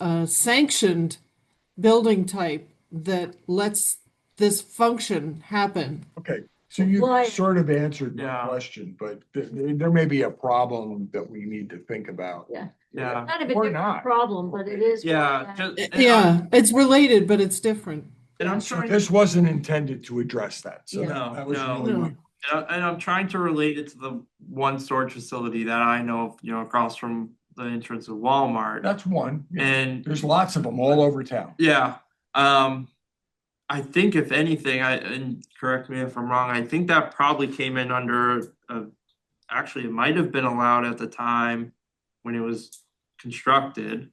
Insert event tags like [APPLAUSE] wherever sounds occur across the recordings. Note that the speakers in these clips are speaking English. a sanctioned building type that lets this function happen. Okay, so you Right. sort of answered my Yeah. question, but th- th- there may be a problem that we need to think about. Yeah, Kind of a Or different not. problem, but it is. yeah. one that- ju- and I'm- Yeah, it's related, but it's different. And I'm So trying, and This wasn't intended to address that, so Yeah. No, that was no. really my I- and I'm trying to relate it to the one storage facility that I know, of, you know, across from the entrance of Walmart. That's one. Yeah. And There's lots of them all over town. yeah, um, I think if anything, I, and correct me if I'm wrong, I think that probably came in under uh Actually, it might have been allowed at the time when it was constructed.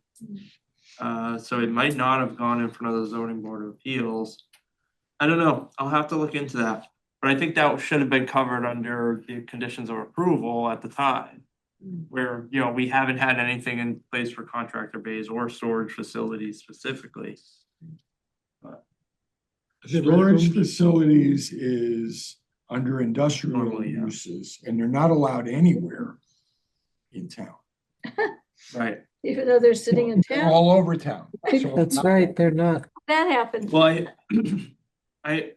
Uh, so it might not have gone in front of the zoning board of appeals. I don't know, I'll have to look into that, but I think that should have been covered under the conditions of approval at the time. Mm. Where, you know, we haven't had anything in place for contractor bays or storage facilities specifically. Storage facilities is under industrial Normally, yeah. uses, and they're not allowed anywhere in town. Right. Even though they're sitting in They're town, All over town. So- they're not. that happens. Well, I, [CLEARS THROAT] I,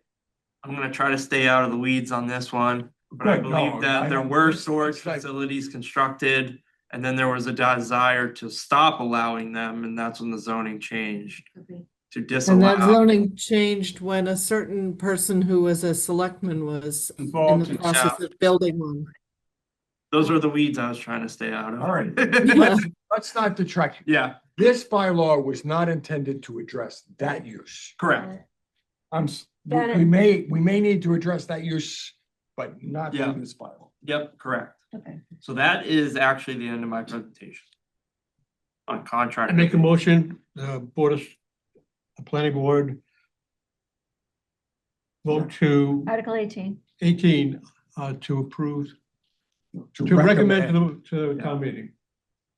I'm gonna try to stay out of the weeds on this one. But I Good, no, believe that I there don't- were storage it's like- facilities constructed, and then there was a desire to stop allowing them, and that's when the zoning changed to And that disallow. zoning changed when a certain person who was a selectman was in Involved the in- process of building one. Those were the weeds I was trying to stay out of. All right. Yeah. Let's not detract. [LAUGHS] Yeah, This bylaw was not intended to address that use. correct. I'm, s- we That we is- may, we may need to address that use, but not Yeah. in this bylaw. Yep, correct. Okay. So that is actually the end of my presentation. On contract. I make a motion, the board of, the planning board vote to Article eighteen. eighteen, uh, to approve, to recommend to the, to the town meeting.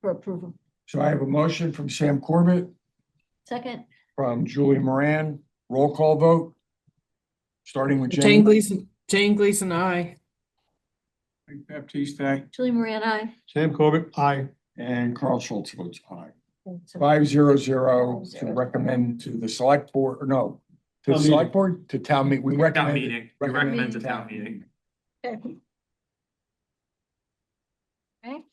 For approval. So I have a motion from Sam Corbett, Second, from Julie Moran, roll call vote. Starting with Jane Jane. Gleason, Jane Gleason, I. Baptiste, aye. Julie Moran, I. Sam Corbett, aye. And Carl Schultz votes aye. Five zero zero to recommend to the select board, or no, to the Town select board, to town meeting. we Town recommend. meeting, we recommend to town meeting. Okay. Okay.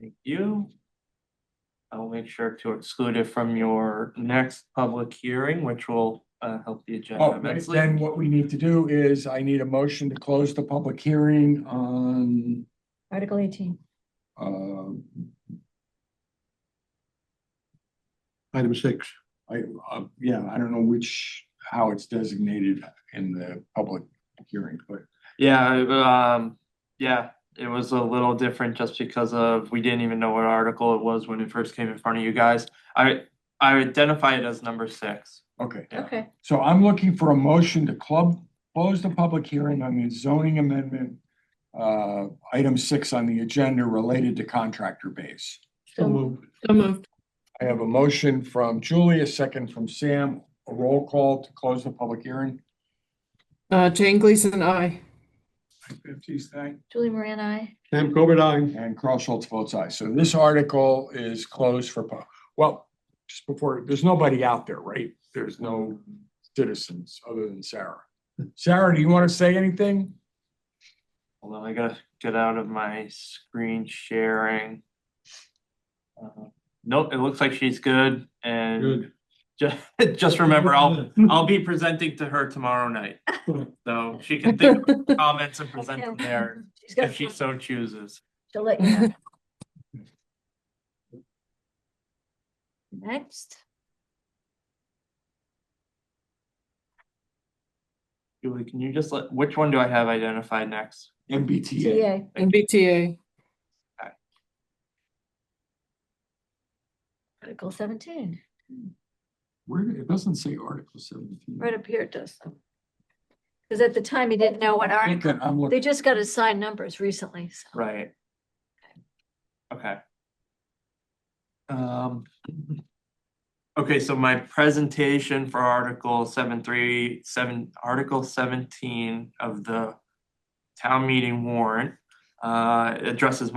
Thank you. I'll make sure to exclude it from your next public hearing, which will uh help the agenda Oh, immensely. then what we need to do is I need a motion to close the public hearing on Article eighteen. um, Item six. I, uh, yeah, I don't know which, how it's designated in the public hearing, but Yeah, I- um, yeah, it was a little different just because of, we didn't even know what article it was when it first came in front of you guys. I I identify it as number six. okay. Yeah. Okay. So I'm looking for a motion to club, close the public hearing on the zoning amendment. Uh, item six on the agenda related to contractor base. So moved. So moved. I have a motion from Julie, a second from Sam, a roll call to close the public hearing. Uh, Jane Gleason, I. Julie Moran, I. Sam Corbett, aye. And Carl Schultz votes aye. So this article is closed for, pub- well, just before, there's nobody out there, right? There's no citizens other than Sarah. Sarah, do you want to say anything? Hold on, I gotta get out of my screen sharing. Uh, Nope, it looks like she's good and Good. just [LAUGHS] just remember, I'll I'll be presenting to her tomorrow night, so she can think of her comments and [LAUGHS] present them there She's got if she so chooses. to let you know. Next, Julie, can you just let, which one do I have identified next? MBTA. TA. And BTA. Article seventeen. Where, it doesn't say Article seventeen. Right up here it does. Because at the time he didn't know what I think article, that I'm they looking, just got assigned numbers recently, so. Right. Okay. Um. Okay, so my presentation for Article seven three seven, Article seventeen of the town meeting warrant uh addresses